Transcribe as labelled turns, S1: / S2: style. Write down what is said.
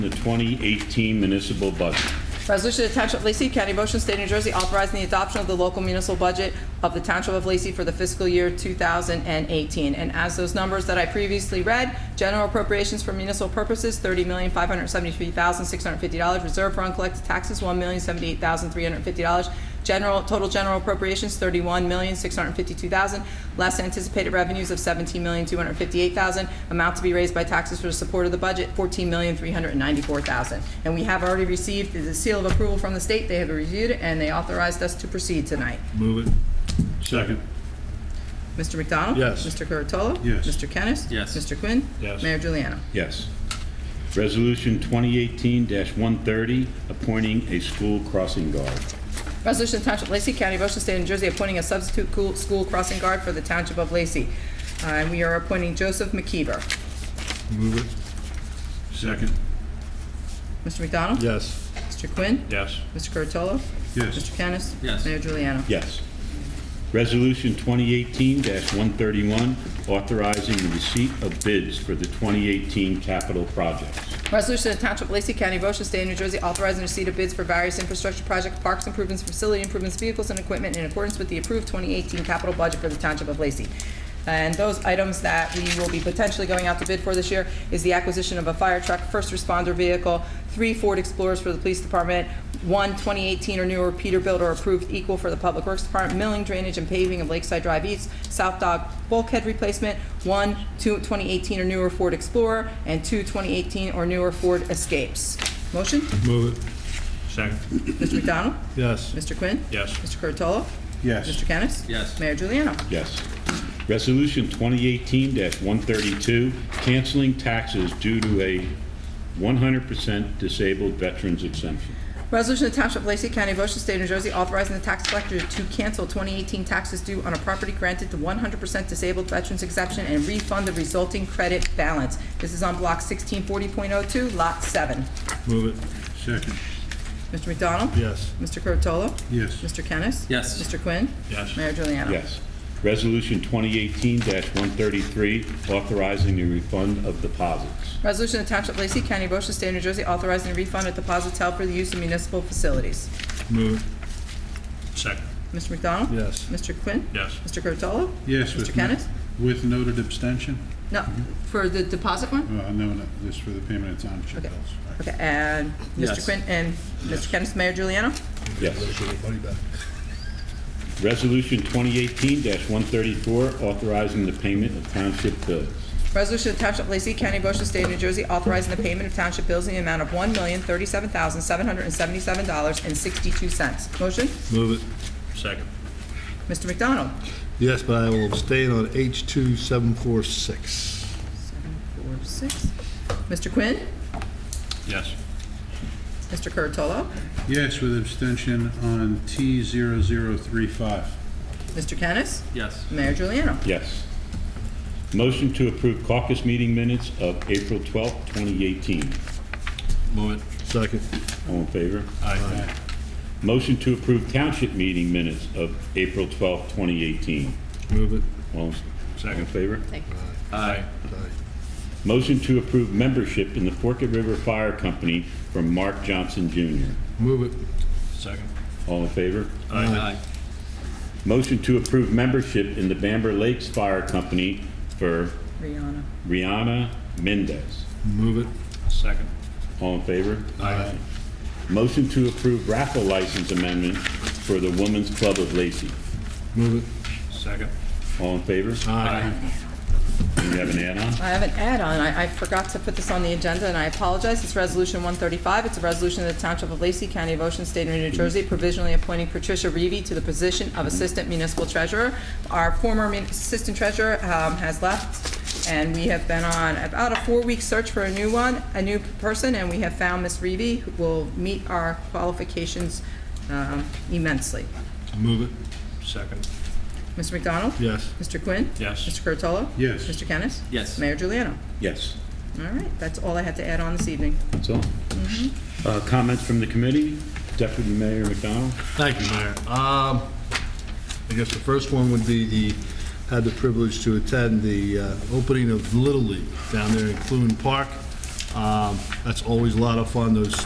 S1: 2018 municipal budget.
S2: Resolution to Township of Lacey, County of Ocean, State of New Jersey, authorizing the adoption of the local municipal budget of the Township of Lacey for the fiscal year 2018. And as those numbers that I previously read, general appropriations for municipal purposes, $30,573,650. Reserve for uncollected taxes, $1,078,350. General, total general appropriations, $31,652,000. Less anticipated revenues of $17,258,000. Amount to be raised by taxes for the support of the budget, $14,394,000. And we have already received the seal of approval from the state. They have reviewed it, and they authorized us to proceed tonight.
S1: Move it. Second.
S2: Mr. McDonald?
S1: Yes.
S2: Mr. Curatolo?
S1: Yes.
S2: Mr. Kennis?
S3: Yes.
S2: Mr. Quinn?
S1: Yes.
S2: Mayor Juliana?
S1: Yes. Resolution 2018-130, appointing a school crossing guard.
S2: Resolution to Township of Lacey, County of Ocean, State of New Jersey, appointing a substitute cool- school crossing guard for the Township of Lacey. Uh, And we are appointing Joseph McKeever.
S1: Move it. Second.
S2: Mr. McDonald?
S1: Yes.
S2: Mr. Quinn?
S1: Yes.
S2: Mr. Curatolo?
S1: Yes.
S2: Mr. Kennis?
S3: Yes.
S2: Mayor Juliana?
S1: Yes. Resolution 2018-131, authorizing the receipt of bids for the 2018 capital projects.
S2: Resolution to Township of Lacey County, of Ocean State, of New Jersey, authorizing receipt of bids for various infrastructure projects, parks improvements, facility improvements, vehicles and equipment in accordance with the approved 2018 capital budget for the Township of Lacey. And those items that we will be potentially going out to bid for this year is the acquisition of a fire truck, first responder vehicle, three Ford Explorers for the police department, one 2018 or newer Peterbilt or approved equal for the Public Works Department, milling, drainage, and paving of Lakeside Drive East, South Dog bulkhead replacement, one two- 2018 or newer Ford Explorer, and two 2018 or newer Ford Escapes. Motion?
S1: Move it. Second.
S2: Mr. McDonald?
S1: Yes.
S2: Mr. Quinn?
S1: Yes.
S2: Mr. Curatolo?
S1: Yes.
S2: Mr. Kennis?
S3: Yes.
S2: Mayor Juliana?
S1: Yes. Resolution 2018-132, canceling taxes due to a 100% disabled veterans exemption.
S2: Resolution to Township of Lacey County, of Ocean State, of New Jersey, authorizing the tax collector to cancel 2018 taxes due on a property granted to 100% disabled veterans exemption and refund the resulting credit balance. This is on Block 1640.02, Lot 7.
S1: Move it. Second.
S2: Mr. McDonald?
S1: Yes.
S2: Mr. Curatolo?
S1: Yes.
S2: Mr. Kennis?
S3: Yes.
S2: Mr. Quinn?
S1: Yes.
S2: Mayor Juliana?
S1: Yes. Resolution 2018-133, authorizing the refund of deposits.
S2: Resolution to Township of Lacey County, of Ocean State, of New Jersey, authorizing a refund of deposits held for the use of municipal facilities.
S1: Move it. Second.
S2: Mr. McDonald?
S1: Yes.
S2: Mr. Quinn?
S1: Yes.
S2: Mr. Curatolo?
S4: Yes.
S2: Mr.
S4: with
S2: Kennis?
S4: With noted abstention?
S2: No, for the deposit one?
S4: Uh, No, no, this for the payment of township
S2: Okay.
S4: bills.
S2: Okay, and Mr.
S3: Yes.
S2: Quinn and Mr. Kennis, Mayor Juliana?
S1: Yes. Resolution 2018-134, authorizing the payment of township bills.
S2: Resolution of Township of Lacey County, Ocean State, New Jersey, authorizing the payment of township bills in the amount of one million thirty-seven thousand seven hundred and seventy-seven dollars and sixty-two cents. Motion?
S5: Move it.
S1: Second.
S2: Mr. McDonald?
S5: Yes, but I will abstain on H2746.
S2: Seven, four, six. Mr. Quinn?
S1: Yes.
S2: Mr. Curatolo?
S4: Yes, with abstention on T0035.
S2: Mr. Kennis?
S3: Yes.
S2: Mayor Juliana?
S1: Yes. Motion to approve caucus meeting minutes of April 12th, 2018.
S3: Move it.
S5: Second.
S1: All in favor?
S3: Aye.
S1: Motion to approve township meeting minutes of April 12th, 2018.
S5: Move it.
S1: All in- all in favor?
S3: Aye.
S5: Aye.
S1: Motion to approve membership in the Forked River Fire Company from Mark Johnson Jr.
S5: Move it.
S3: Second.
S1: All in favor?
S3: Aye.
S1: Motion to approve membership in the Bamber Lakes Fire Company for
S2: Rihanna.
S1: Rihanna Mendez.
S5: Move it.
S3: Second.
S1: All in favor? Motion to approve raffle license amendment for the Women's Club of Lacey.
S5: Move it.
S3: Second.
S1: All in favor?
S3: Aye.
S1: You have an add-on?
S2: I have an add-on. I I forgot to put this on the agenda, and I apologize. It's Resolution 135. It's a resolution of the Township of Lacey, County of Ocean, State of New Jersey, provisionally appointing Patricia Reevy to the position of Assistant Municipal Treasurer. Our former mun- Assistant Treasurer um, has left, and we have been on about a four-week search for a new one, a new person, and we have found Ms. Reevy, who will meet our qualifications um, immensely.
S5: Move it.
S3: Second.
S2: Mr. McDonald?
S5: Yes.
S2: Mr. Quinn?
S3: Yes.
S2: Mr. Curatolo?
S4: Yes.
S2: Mr. Kennis?
S3: Yes.
S2: Mayor Juliana?
S1: Yes.
S2: All right, that's all I had to add on this evening.
S1: That's all. Uh, Comments from the committee? Deputy Mayor McDonald?
S5: Thank you, Mayor. Um, I guess the first one would be the, had the privilege to attend the uh, opening of Little League down there in Clune Park. Um, That's always a lot of fun, those